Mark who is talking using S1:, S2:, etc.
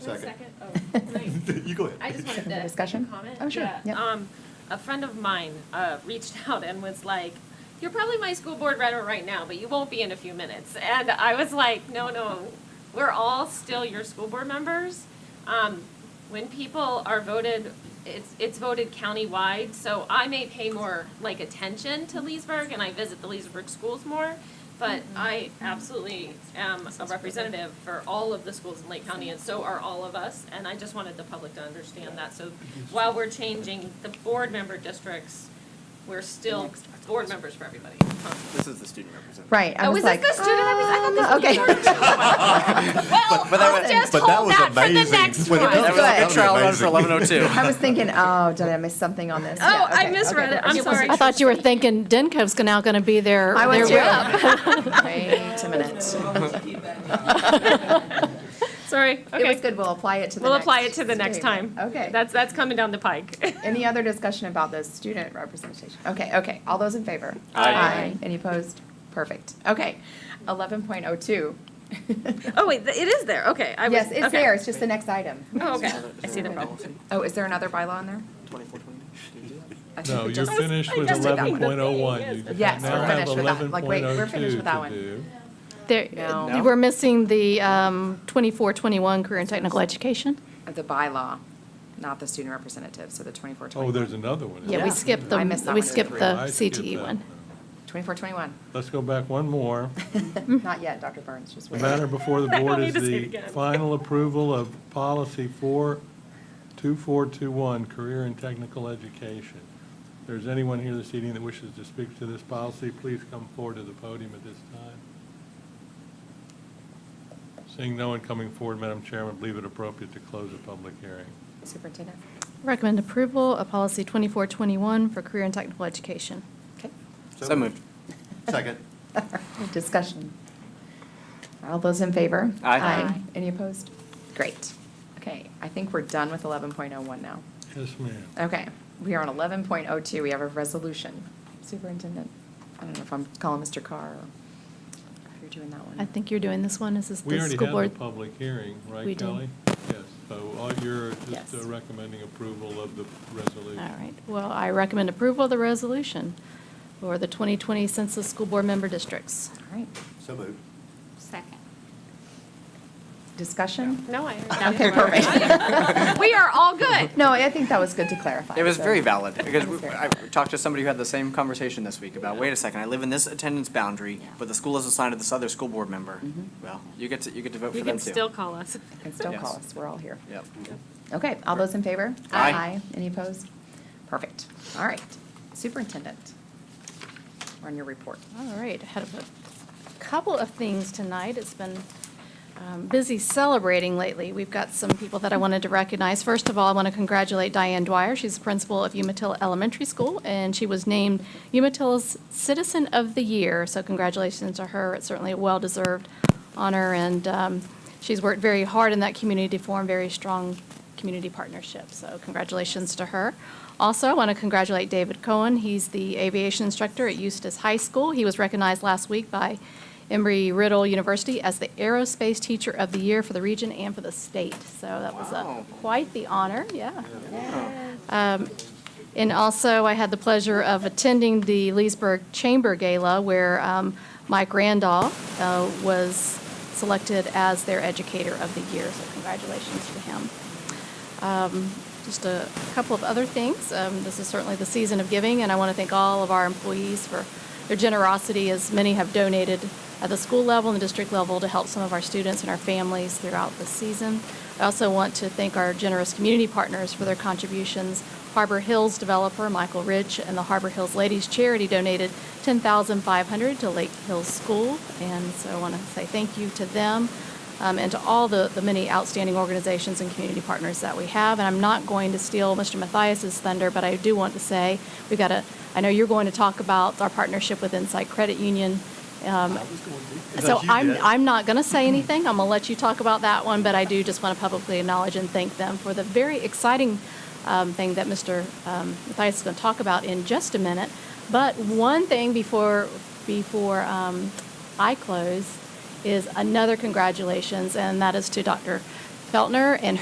S1: second.
S2: Oh, great.
S1: You go ahead.
S2: I just wanted to.
S3: Discussion?
S2: Comment?
S3: Oh, sure.
S2: Yeah.
S3: Yep.
S2: Um, a friend of mine, uh, reached out and was like, you're probably my school board runner right now, but you won't be in a few minutes. And I was like, no, no, we're all still your school board members. Um, when people are voted, it's, it's voted countywide, so I may pay more, like, attention to Leesburg and I visit the Leesburg schools more. But I absolutely am a representative for all of the schools in Lake County, and so are all of us. And I just wanted the public to understand that. So while we're changing the board member districts, we're still board members for everybody.
S4: This is the student representative.
S3: Right, I
S2: Oh,
S3: was
S2: is this
S3: like.
S2: the student representative?
S3: um,
S2: I thought this was
S3: Okay.
S2: Well,
S4: but that
S2: I'll
S4: was-
S2: just
S1: but that
S2: hold
S1: was
S2: that for the
S1: amazing.
S2: next
S1: But
S2: one.
S1: it
S3: was
S4: That was a
S3: good.
S4: good trial run
S1: That'd
S4: for
S1: be
S4: eleven oh two.
S3: I was thinking, oh, did I miss something on this?
S2: Oh,
S3: Yeah,
S2: I
S3: okay,
S2: misread
S3: okay,
S2: it. I'm
S3: perfect.
S2: sorry.
S5: I thought you were thinking Denko's going now going to be there.
S3: I was too. Wait a minute.
S2: Sorry,
S3: It was
S2: okay.
S3: good, we'll apply it to the next.
S2: We'll apply it to the next
S3: statement.
S2: time.
S3: Okay.
S2: That's, that's coming down the pike.
S3: Any other discussion about the student representation? Okay, okay, all those in favor?
S2: Aye.
S3: Any opposed? Perfect, okay. Eleven point oh two.
S2: Oh, wait, th- it is there, okay. I was-
S3: Yes, it's
S2: okay.
S3: there, it's just the next item.
S2: Oh, okay, I see the problem.
S3: Oh, is there another bylaw on there?
S4: Twenty-four, twenty. Did you do that?
S3: I think
S6: No,
S3: we
S6: you're
S3: just-
S6: finished
S2: I
S6: with
S2: just took out
S6: eleven point oh one.
S2: the thing,
S3: yes. Yes, we're
S6: Now have
S3: finished with that. Like, wait, we're
S6: 11.02
S3: finished with that
S6: to
S3: one.
S6: do.
S5: There-
S3: No.
S5: We're missing the um, 2421 career and technical education.
S3: The bylaw, not the student representative, so the twenty-four,
S6: Oh,
S3: twenty-one.
S6: there's another one. isn't
S5: Yeah, we
S6: there?
S5: skipped
S3: I missed
S5: the,
S3: that
S5: we
S3: one.
S5: skipped the
S6: I skipped
S5: CTE
S2: E
S6: that
S5: one.
S3: Twenty-four, twenty-one.
S6: Let's go back one more.
S3: Not yet, Dr. Burns, just
S6: The
S3: wait.
S6: matter before the
S2: I don't
S6: board
S2: need
S6: is
S2: to see it
S6: the
S2: again.
S6: final approval of policy four, two four two one, career and technical education. If there's anyone here this evening that wishes to speak to this policy, please come forward to the podium at this time. Seeing no one coming forward, Madam Chairman, believe it appropriate to close the public hearing.
S3: Superintendent?
S5: Recommend approval of policy 2421 for career and technical education.
S3: Okay.
S4: So moved.
S1: Second.
S3: Discussion. All those in favor?
S4: Aye.
S3: Any opposed? Great. Okay, I think we're done with 11.01 now.
S6: Yes, ma'am.
S3: Okay, we are on 11.02, we have a resolution. Superintendent, I don't know if I'm calling Mr. Carr or if you're doing that one.
S5: I think you're doing this one. This is
S6: We
S5: the
S6: already
S5: school
S6: had
S5: board.
S6: the public hearing,
S5: We
S6: right,
S5: did.
S6: Kelly? Yes, so all you're
S3: Yes.
S6: just uh, recommending approval of the
S5: All
S6: resolution.
S5: right. Well, I recommend approval of the resolution for the 2020 census school board member districts.
S3: All right,
S1: So moved.
S7: Second.
S3: discussion?
S2: No, I.
S3: Okay, perfect.
S2: We are all good.
S3: No, I think that was good to clarify.
S4: It was
S3: so-
S4: very valid, because
S3: It was
S4: we-
S3: very
S4: I talked to somebody who had the same conversation this week about, wait a second, I live in this attendance boundary, but the school is assigned to this other school board member.
S3: Mm-hmm.
S4: Well, you get to, you get to vote for
S2: You
S4: them too.
S2: can still call us.
S3: You can still call
S4: Yes.
S3: us, we're all here.
S4: Yep.
S3: Okay, all those in favor?
S4: Aye.
S3: Any opposed? Perfect. All right. Superintendent, we're on your report.
S5: All right, I had a couple of things tonight. It's been um, busy celebrating lately. We've got some people that I wanted to recognize. First of all, I want to congratulate Diane Dwyer. She's the principal of Umatilla Elementary School, and she was named Umatillas Citizen of the Year. So congratulations to her. It's certainly a well-deserved honor, and um, she's worked very hard in that community to form very strong community partnership. So congratulations to her. Also, I want to congratulate David Cohen. He's the aviation instructor at Eustis High School. He was recognized last week by Embry-Riddle University as the Aerospace Teacher of the Year for the region and for the state. So that was a,
S4: Wow.
S5: quite the honor, yeah. Um, And also, I had the pleasure of attending the Leesburg Chamber Gala where um, Mike Randolph uh, was selected as their Educator of the Year. So congratulations to him. Um, Just a couple of other things. Um, This is certainly the season of giving, and I want to thank all of our employees for their generosity, as many have donated at the school level and the district level to help some of our students and our families throughout the season. I also want to thank our generous community partners for their contributions. Harbor Hills developer Michael Rich and the Harbor Hills Ladies Charity donated 10500 to Lake Hills School, and so I want to say thank you to them um, and to all the, the many outstanding organizations and community partners that we have. And I'm not going to steal Mr. Mathias's thunder, but I do want to say we've got a, I know you're going to talk about our partnership with Insight Credit Union. Um, so
S1: No, you
S5: I'm,
S1: did.
S5: I'm not going to say anything. I'm going to let you talk about that one, but I do just want to publicly acknowledge and thank them for the very exciting um, thing that Mr. um, Mathias is going to talk about in just a minute. But one thing before, before um, I close is another congratulations, and that is to Dr. Feltner and